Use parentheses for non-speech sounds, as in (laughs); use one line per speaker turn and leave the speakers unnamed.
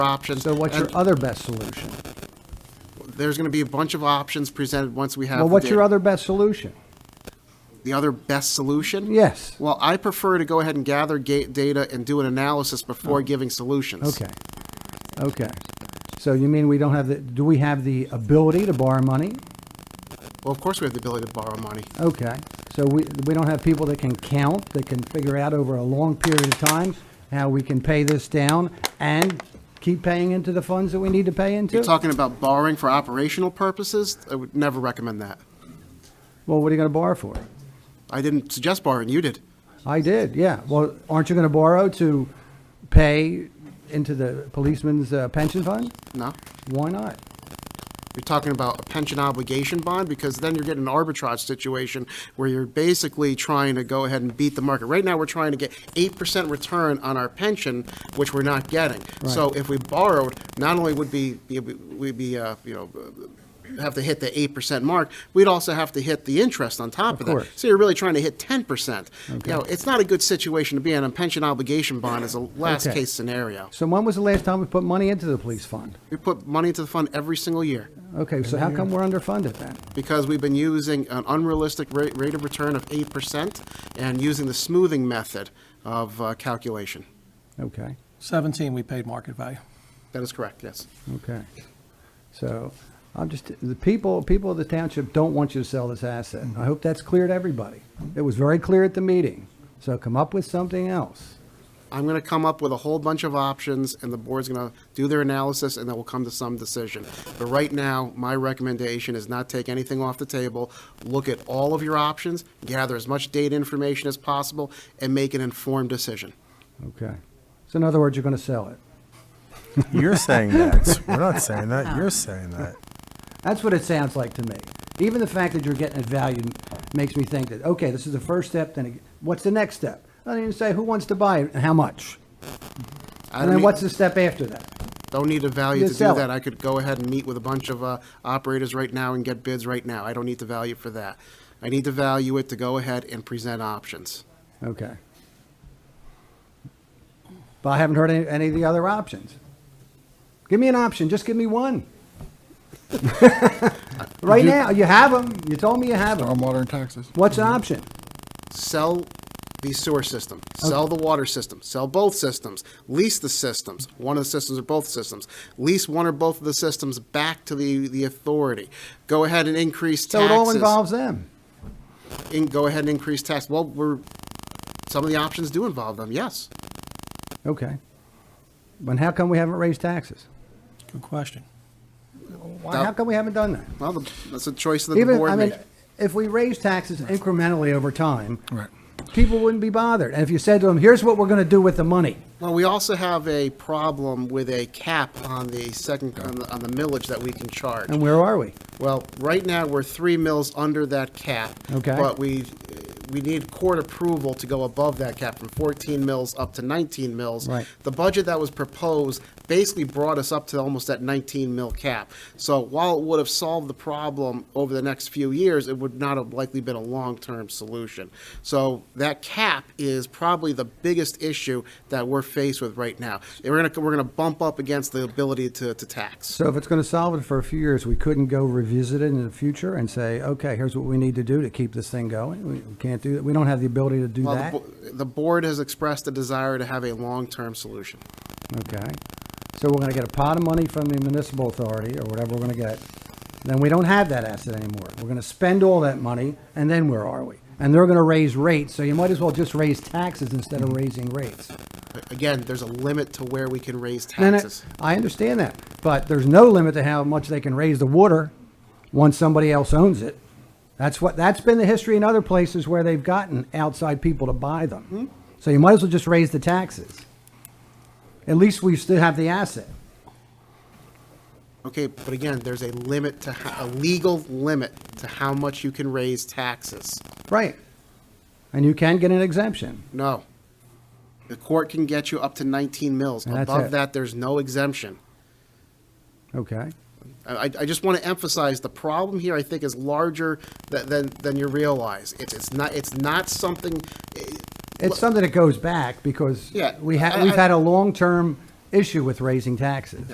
options.
So what's your
and
other best solution?
There's going to be a bunch of options presented once we have.
Well,
the
what's your
data.
other best solution?
The other best solution?
Yes.
Well, I prefer to go ahead and gather ga- data and do an analysis before giving solutions.
Oh. Okay, okay. So you mean we don't have the, do we have the ability to borrow money?
Well, of course, we have the ability to borrow money.
Okay, so we, we don't have people that can count, that can figure out over a long period of time how we can pay this down and keep paying into the funds that we need to pay
You're
into?
talking about borrowing for operational purposes? I would never recommend that.
Well, what are you going to borrow for?
I didn't suggest borrowing, you did.
I did, yeah. Well, aren't you going to borrow to pay into the policeman's uh, pension fund?
No?
Why not?
You're talking about a pension obligation bond, because then you're getting an arbitrage situation where you're basically trying to go ahead and beat the market. Right now, we're trying to get eight percent return on our pension, which we're not getting. So if we borrowed, not only would be, we'd be, uh, you know, have to hit the eight percent mark, we'd also have to hit the interest on top of that.
course.
So you're really trying to hit ten percent. You know, it's not a good situation to be in, and pension obligation bond is a
Okay.
last-case scenario.
So when was the last time we put money into the police fund?
We put money into the fund every single year.
Okay, so how come we're underfunded then?
because we've been using an unrealistic rate, rate of return of 8% and using the smoothing method of uh, calculation.
Okay,
17, we paid market value.
That is correct, yes.
okay. So I'm just, the people, people of the township don't want you to sell this asset. I hope that's clear to everybody. It was very clear at the meeting. So come up with something else.
I'm going to come up with a whole bunch of options, and the board's going to do their analysis, and then we'll come to some decision. But right now, my recommendation is not take anything off the table. Look at all of your options, gather as much data information as possible, and make an informed decision.
Okay. So in other words, you're going to sell it.
You're saying that. We're not saying that. You're saying that.
That's what it sounds like to me. Even the fact that you're getting it valued makes me think that, okay, this is the first step, then it- what's the next step? I didn't even say who wants to buy it and how much.
I
And
don't
then
need-
what's the step after that?
Don't need to value
You
to do
sell it.
that. I could go ahead and meet with a bunch of uh, operators right now and get bids right now. I don't need to value for that. I need to value it to go ahead and present options.
Okay. But I haven't heard any, any of the other options. Give me an option. Just give me one. (laughs) right now, you have them. You told me you have them.
Stormwater and taxes. Mm-hmm.
What's an option?
Sell the sewer system, sell the water system, sell both systems, lease the systems, one of the systems or both systems, lease one or both of the systems back to the, the authority. Go ahead and increase
So
taxes.
it all involves them.
in- Go ahead and increase tax. Well, we're, some of the options do involve them, yes.
Okay. But how come we haven't raised taxes?
Good question.
Why, how come we haven't done that?
Well, the- that's a choice that the
Even, I
board
mean,
made.
if we raise taxes incrementally over time,
Right.
people wouldn't be bothered. And if you said to them, here's what we're going to do with the money.
Well, we also have a problem with a cap on the second, on the, on the millage that we can charge.
And where are we?
Well, right now, we're three mills under that cap.
Okay.
But we, we need court approval to go above that cap from 14 mills up to 19 mills.
Right.
The budget that was proposed basically brought us up to almost that 19 mil cap. So while it would have solved the problem over the next few years, it would not have likely been a long-term solution. So that cap is probably the biggest issue that we're faced with right now. And we're gonna, we're gonna bump up against the ability to, to tax.
So if it's going to solve it for a few years, we couldn't go revisit it in the future and say, okay, here's what we need to do to keep this thing going. We we can't do that. We don't have the ability to do
Well, the
that.
bo- The board has expressed a desire to have a long-term solution.
Okay. So we're going to get a pot of money from the municipal authority or whatever we're going to get. Then we don't have that asset anymore. We're going to spend all that money and then where are we? And they're going to raise rates. So you might as well just raise taxes instead of raising rates.
Again, there's a limit to where we can raise
And I-
taxes.
I understand that, but there's no limit to how much they can raise the water once somebody else owns it. That's what, that's been the history in other places where they've gotten outside people to buy
Mm-hmm.
them. So you might as well just raise the taxes. At least we still have the asset.
Okay, but again, there's a limit to, ho- a legal limit to how much you can raise taxes.
Right. And you can get an exemption.
No. The court can get you up to 19 mils.
And that's
Above
it.
that, there's no exemption.
Okay.
I, I just want to emphasize, the problem here, I think, is larger tha- than, than you realize. It's, it's not, it's not something,
It's something that goes back because
Yeah,
we
I-
have, we've
I-
had a long-term issue with raising taxes.